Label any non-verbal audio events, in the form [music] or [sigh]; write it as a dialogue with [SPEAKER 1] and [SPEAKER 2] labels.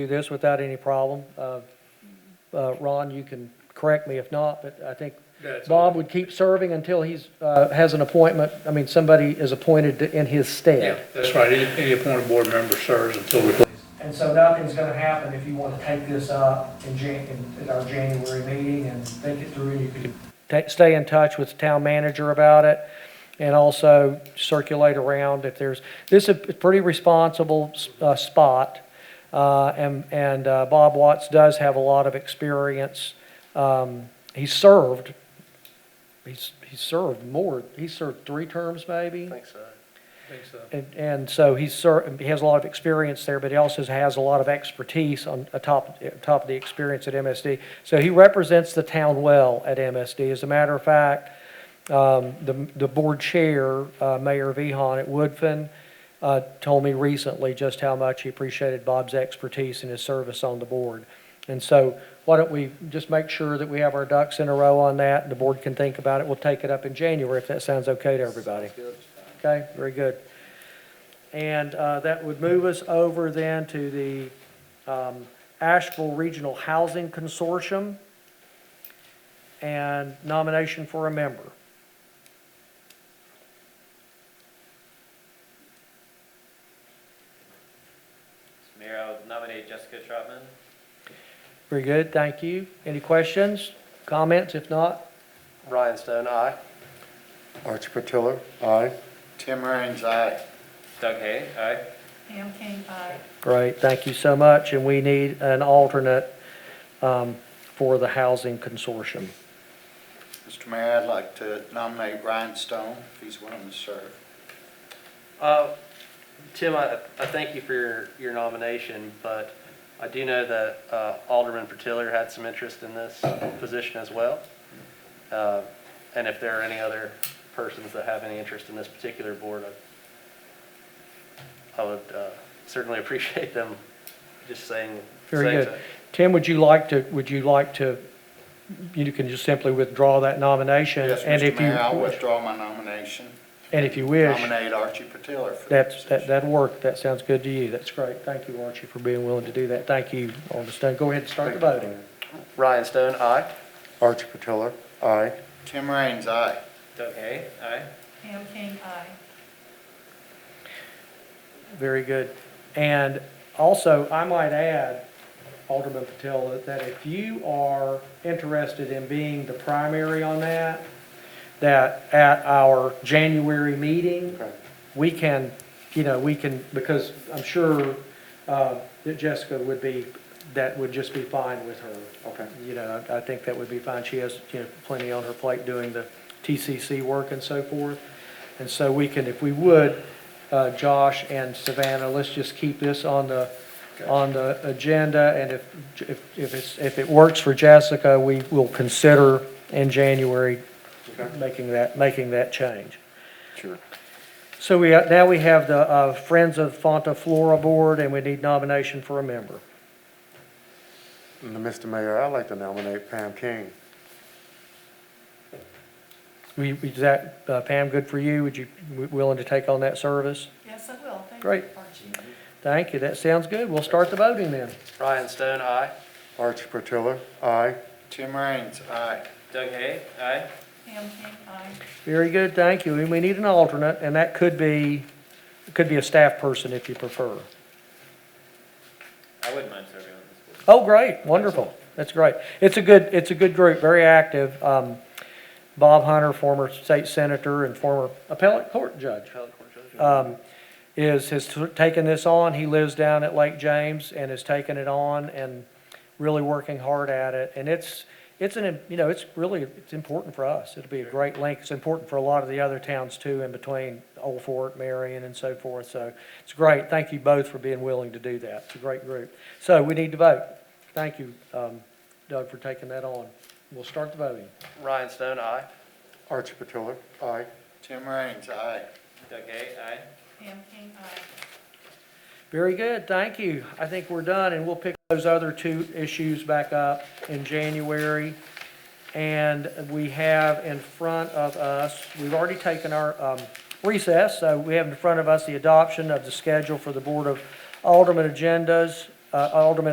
[SPEAKER 1] do this without any problem. Uh, uh, Ron, you can correct me if not, but I think
[SPEAKER 2] That's
[SPEAKER 1] Bob
[SPEAKER 2] all.
[SPEAKER 1] would keep serving until he's, uh, has an appointment, I mean, somebody is appointed to- in his
[SPEAKER 2] Yeah,
[SPEAKER 1] stead.
[SPEAKER 2] that's right. Any, any appointed board member serves until we.
[SPEAKER 1] And so nothing's gonna happen if you wanna take this up in Jan, in our January meeting and think it through, you can. stay in touch with the town manager about it and also circulate around if there's, this is a pretty responsible, uh, spot. Uh, and, and, uh, Bob Watts does have a lot of experience. Um, he served, he's, he served more, he served three terms maybe?
[SPEAKER 2] so. Think so.
[SPEAKER 1] And, and so he's cer, he has a lot of experience there, but he also has a lot of expertise on, atop, atop the experience at MSD. So he represents the town well at MSD. As a matter of fact, um, the, the board chair, uh, Mayor Vihan at Woodfin, uh, told me recently just how much he appreciated Bob's expertise and his service on the board. And so why don't we just make sure that we have our ducks in a row on that? The board can think about it. We'll take it up in January if that sounds okay to everybody. Okay, very good. And uh, that would move us over then to the um, Asheville Regional Housing Consortium and nomination for a member.
[SPEAKER 3] Mayor, I would nominate Jessica Trotman.
[SPEAKER 1] Very good, thank you. Any questions, comments? If not,
[SPEAKER 4] Ryan Stone, aye. Archie Patillo, aye.
[SPEAKER 5] Tim Raines, aye.
[SPEAKER 3] Doug Hay, aye.
[SPEAKER 6] Pam King, aye.
[SPEAKER 1] great, thank you so much. And we need an alternate um, for the Housing Consortium.
[SPEAKER 5] Mr. Mayor, I'd like to nominate Ryan Stone, if he's willing to serve.
[SPEAKER 4] Uh, Tim, I, I thank you for your, your nomination, but I do know that uh, Alderman Patillo had some interest in this position as well. Uh, And if there are any other persons that have any interest in this particular board, I- I would uh, certainly [laughs] appreciate them just saying.
[SPEAKER 1] Very
[SPEAKER 4] saying
[SPEAKER 1] good.
[SPEAKER 4] so.
[SPEAKER 1] Tim, would you like to, would you like to, you can just simply withdraw that nomination?
[SPEAKER 5] Yes,
[SPEAKER 1] and if
[SPEAKER 5] Mr.
[SPEAKER 1] you
[SPEAKER 5] Mayor, I'll withdraw my nomination.
[SPEAKER 1] And if you wish.
[SPEAKER 5] Nominate Archie Patillo for the
[SPEAKER 1] That's, that,
[SPEAKER 5] position.
[SPEAKER 1] that'd work. That sounds good to you. That's great. Thank you, Archie, for being willing to do that. Thank you, Alderman Stone. Go ahead and start the voting.
[SPEAKER 4] Ryan Stone, aye.
[SPEAKER 7] Archie Patillo, aye.
[SPEAKER 5] Tim Raines, aye.
[SPEAKER 3] Doug Hay, aye.
[SPEAKER 6] Pam King, aye.
[SPEAKER 1] Very good. And also, I might add, Alderman Patel, that- that if you are interested in being the primary on that, that at our January meeting, we can, you know, we can, because I'm sure uh, that Jessica would be, that would just be fine with her.
[SPEAKER 7] Okay.
[SPEAKER 1] You know, I I think that would be fine. She has, you know, plenty on her plate doing the TCC work and so forth. And so we can, if we would, uh, Josh and Savannah, let's just keep this on the, on the agenda. And if, if, if it's, if it works for Jessica, we will consider in January making that, making that change.
[SPEAKER 7] Sure.
[SPEAKER 1] So we, have- now we have the uh, Friends of Fonta Flora Board, and we need nomination for a member.
[SPEAKER 7] And Mr. Mayor, I'd like to nominate Pam King.
[SPEAKER 1] We, we- is that, uh, Pam, good for you? Would you, w- willing to take on that service?
[SPEAKER 6] Yes, I will. Thank you,
[SPEAKER 1] Great.
[SPEAKER 6] Archie.
[SPEAKER 1] Thank you, that sounds good. We'll start the voting then.
[SPEAKER 4] Ryan Stone, aye.
[SPEAKER 7] Archie Patillo, aye.
[SPEAKER 5] Tim Raines, aye.
[SPEAKER 3] Doug Hay, aye.
[SPEAKER 6] Pam King, aye.
[SPEAKER 1] Very good, thank you. And we need an alternate, and that could be, could be a staff person if you prefer.
[SPEAKER 3] I wouldn't mind serving on this board.
[SPEAKER 1] Oh, great, wonderful, that's great. It's a good, it's a good group, very active. Um, Bob Hunter, former state senator and former appellate court judge.
[SPEAKER 4] Appellate Court Judge.
[SPEAKER 1] um, is, has t- taken this on. He lives down at Lake James and has taken it on and really working hard at it. And it's, it's an, im- you know, it's really, it's important for us. It'll be a great link. It's important for a lot of the other towns too, in between Old Fort, Marion and so forth. So it's great. Thank you both for being willing to do that. It's a great group. So we need to vote. Thank you, um, Doug, for taking that on. We'll start the voting.
[SPEAKER 4] Ryan Stone, aye.
[SPEAKER 7] Archie Patillo, aye.
[SPEAKER 5] Tim Raines, aye.
[SPEAKER 3] Doug Hay, aye.
[SPEAKER 6] Pam King, aye.
[SPEAKER 1] Very good, thank you. I think we're done, and we'll pick those other two issues back up in January. And we have in front of us, we've already taken our um, recess, so we have in front of us the adoption of the schedule for the Board of Alderman agendas, uh, Alderman